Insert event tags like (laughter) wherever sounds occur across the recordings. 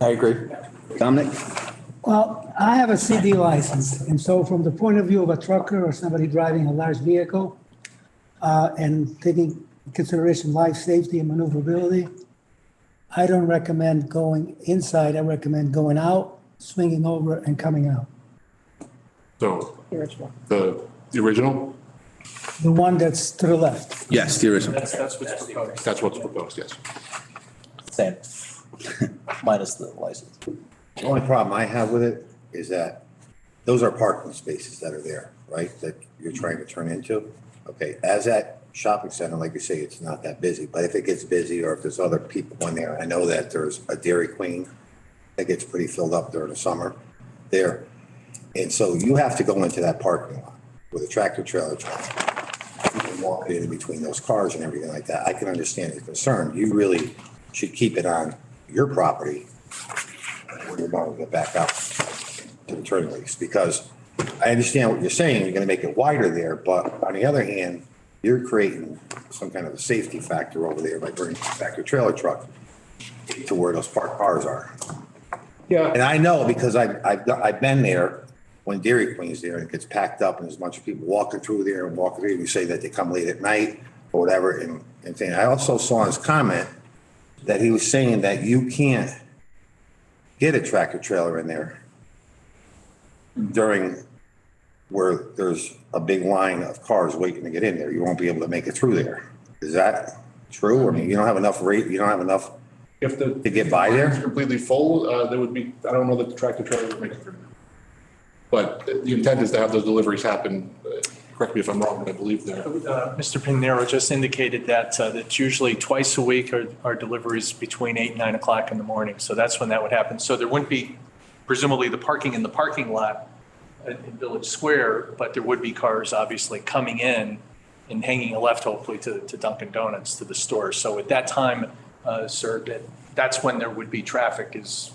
I agree. Dominic? Well, I have a CD license, and so from the point of view of a trucker or somebody driving a large vehicle, uh, and taking consideration life safety and maneuverability, I don't recommend going inside, I recommend going out, swinging over and coming out. So the, the original, The one that's to the left. Yes, there is. That's, that's what's proposed. that's what's proposed, yes. Same. (laughs) Minus the license. The only problem I have with it is that those are parking spaces that are there, right, that you're trying to turn into. Okay, as that shopping center, like you say, it's not that busy, but if it gets busy or if there's other people in there, I know that there's a Dairy Queen that gets pretty filled up during the summer there. And so you have to go into that parking lot with a tractor trailer truck. You can walk in between those cars and everything like that. I can understand the concern. You really should keep it on your property where you're going to get back out to the turn lanes, because I understand what you're saying, you're gonna make it wider there, but on the other hand, you're creating some kind of a safety factor over there by bringing back your trailer truck to where those parked cars are. Yeah. And I know because I've, I've, got- I've been there when Dairy Queen's there and it gets packed up and there's a bunch of people walking through there and walking through, and you say that they come late at night or whatever, and, and thing. I also saw his comment that he was saying that you can't get a tractor trailer in there during where there's a big line of cars waiting to get in there. You won't be able to make it through there. Is that true? I mean, you don't have enough rate, you don't have enough If the. to get by there? Completely full, uh, there would be, I don't know that the tractor trailer would make it through. But the intent is to have those deliveries happen, uh, correct me if I'm wrong, but I believe they're. Uh, Mr. Pinero just indicated that, uh, that's usually twice a week are, are deliveries between eight, and nine o'clock in the morning. So that's when that would happen. So there wouldn't be presumably the parking in the parking lot in in Village Square, but there would be cars obviously coming in and hanging a left hopefully to, to Dunkin' Donuts, to the store. So at that time, uh, sir, that, that's when there would be traffic is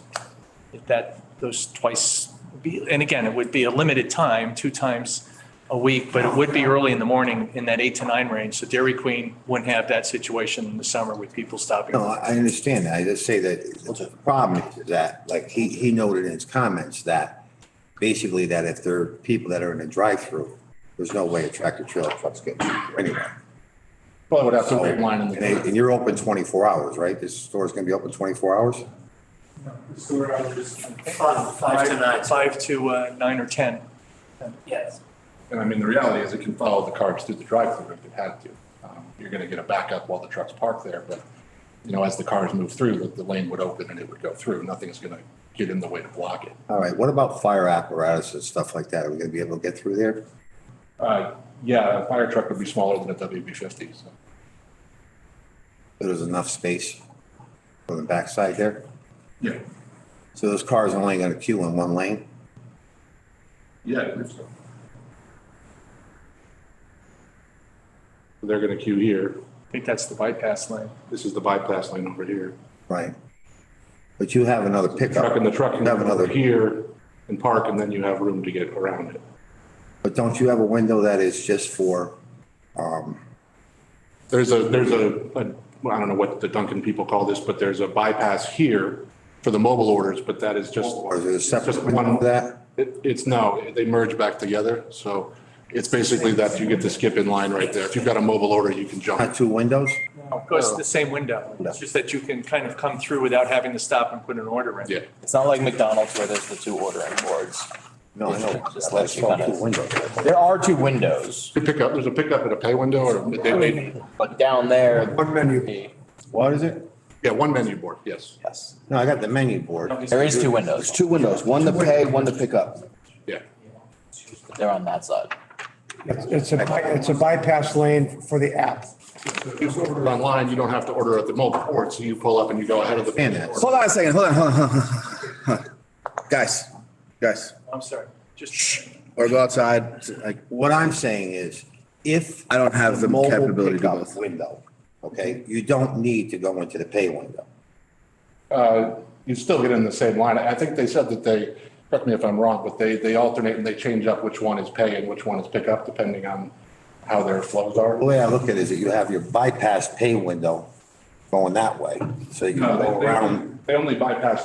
if that, those twice, be and again, it would be a limited time, two times a week, but it would be early in the morning in that eight to nine range. So Dairy Queen wouldn't have that situation in the summer with people stopping. No, I I understand that. I just say that the problem is that, like, he, he noted in his comments that basically that if there are people that are in a drive-through, there's no way a tractor trailer truck's getting through anyway. Probably would have to So, wait line in And they- the. and you're open twenty-four hours, right? This store's gonna be open twenty-four hours? Five to nine. Five to uh, nine or 10. And I mean, the reality is it can follow the cars through the drive-through if it had to. Um, You're going to get a backup while the truck's parked there, but, you know, as the cars move through, the- the lane would open and it would go through. Nothing's going to get in the way to block it. All right, what about fire apparatus and stuff like that? Are we gonna be able to get through there? Uh, Yeah, a fire truck would be smaller than a WB-50, so. There's enough space on the backside there? Yeah. So those cars are only gonna queue in one lane? Yeah, I believe so. They're gonna queue here. I think that's the bypass lane. This is the bypass lane over here. Right. But you have another pickup. Truck and the truck You can have have another another here and park, and then you have room to get around it. But don't you have a window that is just for, There's a, there's a, a- well, I don't know what the Duncan people call this, but there's a bypass here for the mobile orders, but that is just. or is it a separate Just window one- for that? It, it's no, they merge back together, so it's basically that you get to skip in line right there. If you've got a mobile order, you can jump. Not two windows? Of course, the same window. It's just that you can kind of come through without having to stop and put an order in. Yeah, It's not like McDonald's where there's the two ordering boards. No, I know. Just I let you saw kind two of, windows. there are two windows, you pick up, there's a pickup and a pay window or a they made- but down there, One menu. the- What is it? Yeah, one menu board, yes. yes, No, I got the menu board. there is two windows. There's two windows, one to pay, one to pick up. Yeah. but They're on that side. It's a, by- it's a bypass lane for the app. If you order online, you don't have to order at the mobile port, so you pull up and you go ahead of the. And that's- Hold on a second, hold on, hold on, hold on, hold on. Guys, guys, I'm sorry, just. or go outside, like, What I'm saying is, if. I don't have the mobile capability to do pickup both. Window, okay, you don't need to go into the pay window. Uh, You still get in the same line. I think they said that they, correct me if I'm wrong, but they, they alternate and they change up which one is pay and which one is pick up, depending on how their flows are. The way I look at it is that you have your bypass pay window going that way, so you can No, go they- around. they- They only bypass